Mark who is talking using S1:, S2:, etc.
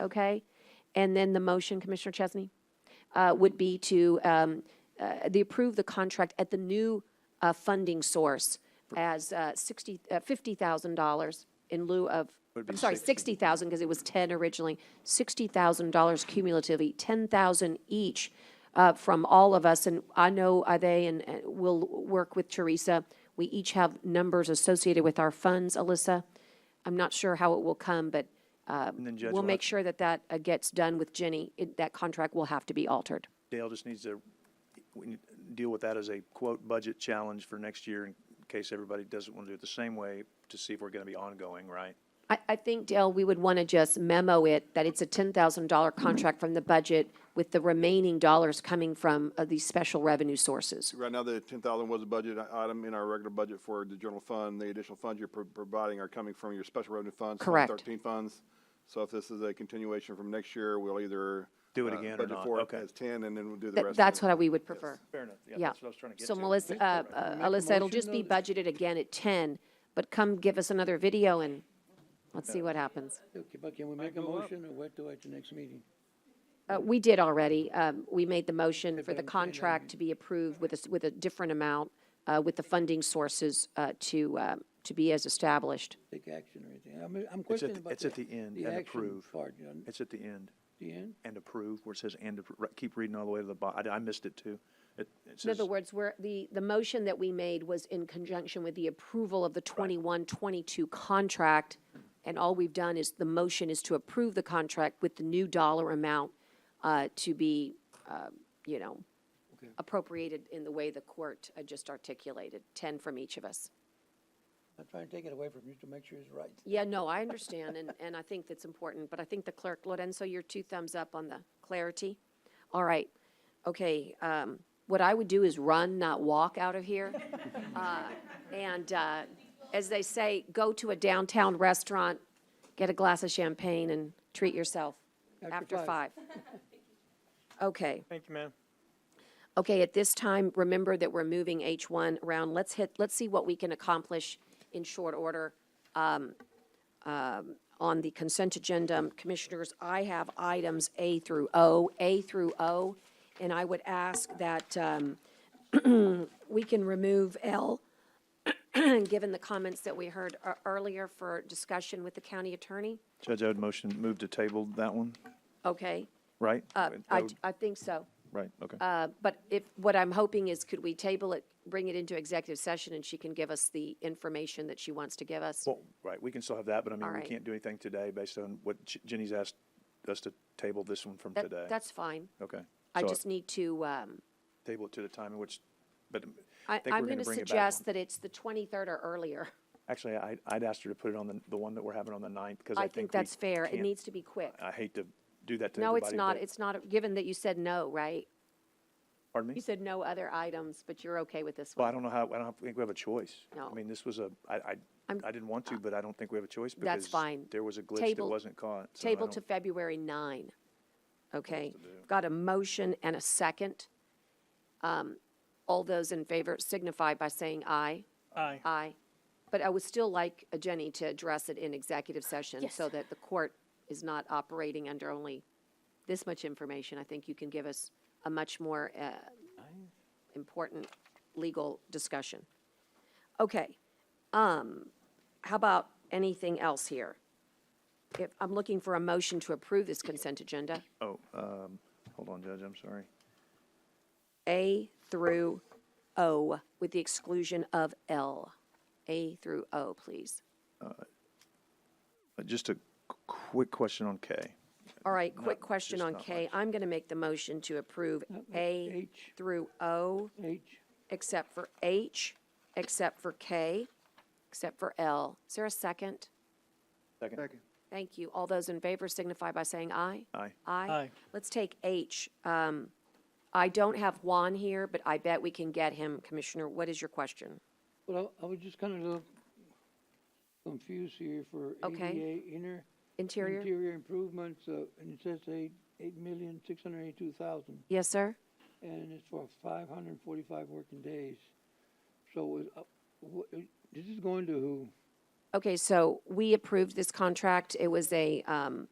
S1: okay? And then the motion, Commissioner Chesney, uh, would be to, um, uh, the approve the contract at the new, uh, funding source as, uh, sixty, uh, fifty thousand dollars in lieu of,
S2: Would
S1: I'm
S2: be
S1: sorry,
S2: 60.
S1: sixty thousand, because it was ten originally, sixty thousand dollars cumulatively, ten thousand each, uh, from all of us, and I know, uh, they, and, uh will work with Teresa. We each have numbers associated with our funds, Alyssa. I'm not sure how it will come, but, uh,
S2: And then Judge
S1: We'll make
S2: Watson-
S1: sure that that uh, gets done with Jenny. It- That contract will have to be altered.
S2: Dale just needs to, we need to deal with that as a quote budget challenge for next year in case everybody doesn't want to do it the same way to see if we're going to be ongoing, right?
S1: I, I think, Dale, we would want to just memo it that it's a $10,000 contract from the budget with the remaining dollars coming from uh, these special revenue sources.
S3: Right now, the ten thousand was a budget i- item in our regular budget for the general fund. The additional funds you're pro- providing are coming from your special revenue funds. Fund
S1: Correct.
S3: Thirteen funds. So if this is a continuation from next year, we'll either.
S2: Do it
S3: uh,
S2: again or
S3: budget
S2: not.
S3: for it
S2: Okay.
S3: As ten, and then we'll do the
S1: That-
S3: rest.
S1: That's what I- we would prefer.
S2: Fair enough. Yeah,
S1: Yeah.
S2: that's what I was trying to get
S1: So
S2: to.
S1: Melissa, uh, uh, Alyssa, it'll just be budgeted again at 10, but come give us another video and let's see what happens.
S4: Okay, but can we make a motion or what do at the next meeting?
S1: Uh, We did already. Um, We made the motion for the
S4: I'm saying, I
S1: contract to be approved with a, s- with a different amount, uh, with the funding sources uh, to, uh, to be as established.
S4: Take action or anything? I'm, I'm
S2: It's at,
S4: questioning
S2: the-
S4: about.
S2: it's at the end
S4: the
S2: and
S4: action
S2: approve.
S4: Part, you know,
S2: It's at the end
S4: the end?
S2: and approve where it says and, appro- right, keep reading all the way to the bottom. I missed it too. It, it
S1: In
S2: says,
S1: other words, where the, the motion that we made was in conjunction with the approval of the 21-22 contract. And all we've done is, the motion is to approve the contract with the new dollar amount uh, to be, uh, you know, appropriated in the way the court uh, just articulated, ten from each of us.
S4: I'm trying to take it away from you to make sure it's right.
S1: Yeah, no, I understand, and, and I think that's important, but I think the clerk, Lorenzo, your two thumbs up on the clarity. All right, okay, um, what I would do is run, not walk out of here. Uh, And, uh, as they say, go to a downtown restaurant, get a glass of champagne and treat yourself
S4: After
S1: after five.
S4: five.
S1: Okay.
S5: Thank you, ma'am.
S1: Okay, at this time, remember that we're moving H1 around. Let's hit, let's see what we can accomplish in short order um, um, on the consent agenda. Commissioners, I have items A through O, A through O, and I would ask that um, we can remove L, given the comments that we heard ear- earlier for discussion with the county attorney.
S2: Judge, I would motion, move to table that one,
S1: Okay,
S2: right?
S1: uh,
S2: That
S1: I,
S2: would-
S1: I think so.
S2: Right, okay.
S1: Uh, But if, what I'm hoping is, could we table it, bring it into executive session, and she can give us the information that she wants to give us?
S2: Well, right, we can still have that, but I mean, we
S1: Alright.
S2: can't do anything today based on what J- Jenny's asked us to table this one from
S1: That-
S2: today.
S1: That's fine.
S2: Okay.
S1: I
S2: So
S1: just need to, um,
S2: Table it to the time in which, but um, I
S1: I,
S2: think we're
S1: I'm
S2: going
S1: going
S2: to
S1: to
S2: bring it back.
S1: suggest
S2: one.
S1: that it's the 23rd or earlier.
S2: Actually, I, I'd asked her to put it on the, the one that we're having on the ninth because
S1: I
S2: I
S1: think
S2: we
S1: that's fair. It
S2: can't-
S1: needs to be quick.
S2: I hate to do that to
S1: No,
S2: everybody.
S1: it's not,
S2: but-
S1: it's not, given that you said no, right?
S2: Pardon
S1: You
S2: me?
S1: said no other items, but you're okay with this
S2: Well, I
S1: one?
S2: don't know how, I don't think we have a choice.
S1: No.
S2: I mean, this was a, I, I,
S1: I'm-
S2: I didn't want to, but I don't think we have a choice because
S1: That's fine.
S2: there was a glitch that
S1: Table-
S2: wasn't caught. so I
S1: Table
S2: don't-
S1: to February 9, okay? Got a motion and a second. Um, All those in favor signify by saying aye.
S5: Aye.
S1: Aye. But I would still like uh, Jenny to address it in executive session so that the court is not operating under only this much information. I think you can give us a much more uh, important legal discussion. Okay. Um, How about anything else here? If, I'm looking for a motion to approve this consent agenda,
S2: Oh, um, hold on, Judge, I'm sorry.
S1: A through O, with the exclusion of L. A through O, please.
S2: Uh, Just a qu- quick question on K.
S1: All right, quick question
S2: just
S1: on
S2: not
S1: K. I'm going to make the motion to approve A
S4: H.
S1: through O,
S4: H,
S1: except for H, except for K, except for L. Is there a second?
S2: Second.
S1: Thank you. All those in favor signify by saying aye.
S2: Aye.
S1: Aye.
S5: Aye.
S1: Let's take H. Um, I don't have Juan here, but I bet we can get him. Commissioner, what is your question?
S4: well, I I was just kind of a little confused here for
S1: Okay.
S4: ADA inner.
S1: Interior?
S4: Interior improvements, uh, and it says eight, eight million, six hundred eighty-two thousand.
S1: Yes, sir?
S4: and it's for five hundred and forty-five working days. So, it- uh, wh- it- this is going to who?
S1: Okay, so we approved this contract. It was a, um,